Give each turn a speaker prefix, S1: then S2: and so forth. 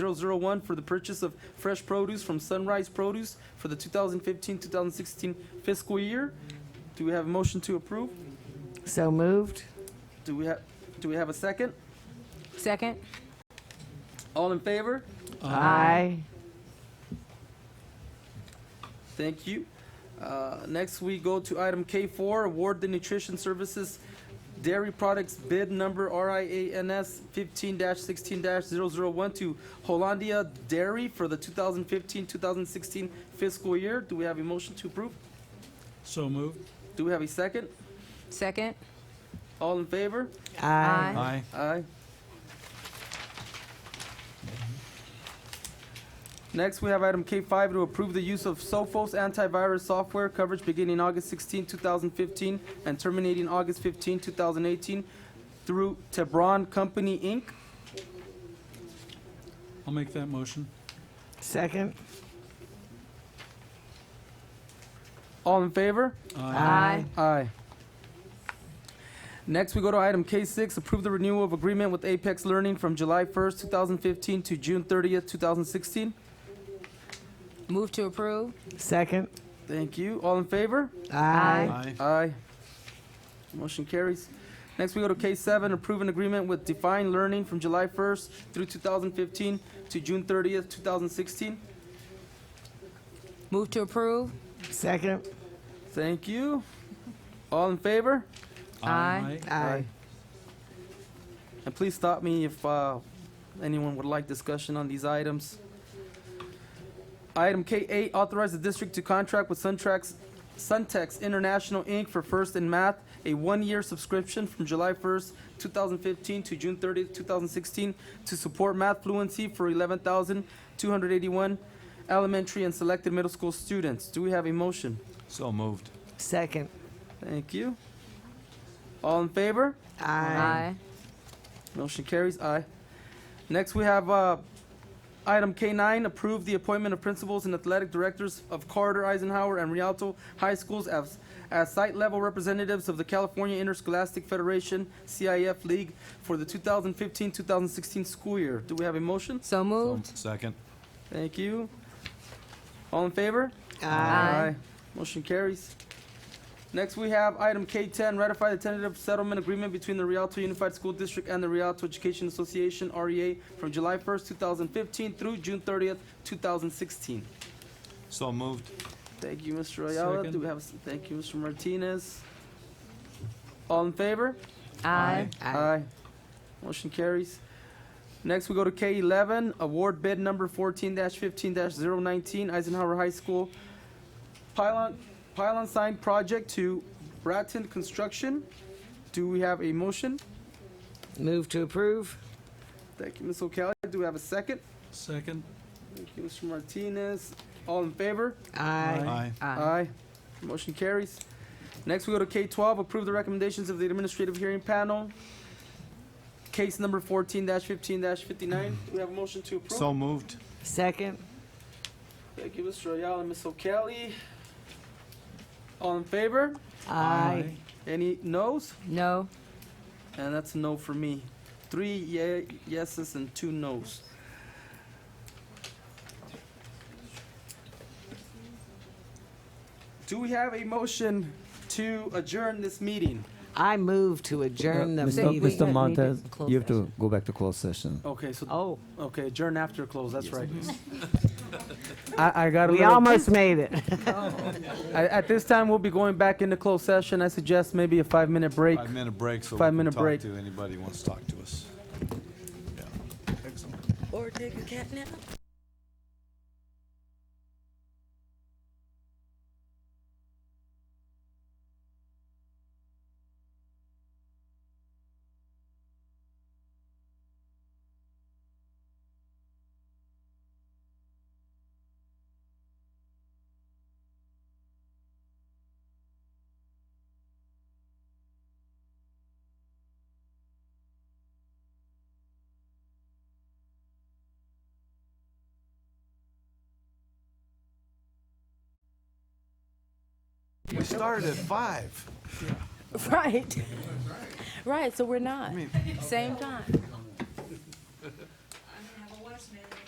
S1: 001 for the purchase of fresh produce from Sunrise Produce for the 2015-2016 fiscal year. Do we have a motion to approve?
S2: So moved.
S1: Do we have, do we have a second?
S3: Second?
S1: All in favor?
S2: Aye.
S1: Thank you. Uh, Next, we go to item K4, award the nutrition services dairy products bid number RIANS 15-16-001 to Hollandia Dairy for the 2015-2016 fiscal year. Do we have a motion to approve?
S4: So moved.
S1: Do we have a second?
S3: Second?
S1: All in favor?
S2: Aye.
S4: Aye.
S1: Aye. Next, we have item K5 to approve the use of Sophos antivirus software coverage beginning August 16, 2015, and terminating August 15, 2018, through Tebron Company, Inc.
S4: I'll make that motion.
S2: Second.
S1: All in favor?
S2: Aye.
S1: Aye. Next, we go to item K6, approve the renewal of agreement with Apex Learning from July 1st, 2015 to June 30th, 2016.
S3: Move to approve?
S2: Second.
S1: Thank you. All in favor?
S2: Aye.
S4: Aye.
S1: Aye. Motion carries. Next, we go to case seven, approve an agreement with Define Learning from July 1st through 2015 to June 30th, 2016.
S3: Move to approve?
S2: Second.
S1: Thank you. All in favor?
S3: Aye.
S2: Aye.
S1: And please stop me if uh, anyone would like discussion on these items. Item K8, authorize the district to contract with Suntrax, Suntex International, Inc. for First in Math, a one-year subscription from July 1st, 2015 to June 30th, 2016, to support math fluency for 11,281 elementary and selected middle school students. Do we have a motion?
S4: So moved.
S2: Second.
S1: Thank you. All in favor?
S2: Aye.
S1: Motion carries, aye. Next, we have uh, item K9, approve the appointment of principals and athletic directors of Carter, Eisenhower, and Rialto High Schools as, as site-level representatives of the California Interscholastic Federation, CIF League, for the 2015-2016 school year. Do we have a motion?
S3: So moved?
S4: Second.
S1: Thank you. All in favor?
S2: Aye.
S1: Motion carries. Next, we have item K10, ratify the tentative settlement agreement between the Rialto Unified School District and the Rialto Education Association, REA, from July 1st, 2015 through June 30th, 2016.
S4: So moved.
S1: Thank you, Mr. Ayala. Do
S4: Second.
S1: we have, thank you, Mr. Martinez. All in favor?
S3: Aye.
S1: Aye. Motion carries. Next, we go to K11, award bid number 14-15-019, Eisenhower High School pylon, pylon sign project to Bratton Construction. Do we have a motion?
S2: Move to approve.
S1: Thank you, Ms. O'Callaghan. Do we have a second?
S4: Second.
S1: Thank you, Mr. Martinez. All in favor?
S2: Aye.
S1: Aye. Motion carries. Next, we go to K-12, approve the recommendations of the administrative hearing panel. Case number 14-15-59. Do we have a motion to approve?
S4: So moved.
S2: Second.
S1: Thank you, Mr. Ayala and Ms. O'Kelly. All in favor?
S2: Aye.
S1: Any noes?
S3: No?
S1: And that's a no for me. Three ye- yeses and two noes. Do we have a motion to adjourn this meeting?
S2: I move to
S5: Uh,
S2: adjourn the
S3: Mr.
S2: meeting.
S3: Mr.
S5: Montez,
S3: Close
S5: you have to
S3: session.
S5: go back to closed session.
S1: Okay, so,
S2: Oh,
S1: okay, adjourn after close, that's right.
S5: I, I got a
S2: we
S5: little,
S2: almost made it.
S1: At, at this time, we'll be going back into closed session. I suggest maybe a five-minute break.
S4: Five-minute break, so we
S1: Five
S4: can
S1: minute
S4: talk
S1: break.
S4: to anybody who wants to talk to us. Yeah. Excellent.
S3: Or take a cat nap?
S4: We started at five.
S3: Right. Right, so we're not. Same time.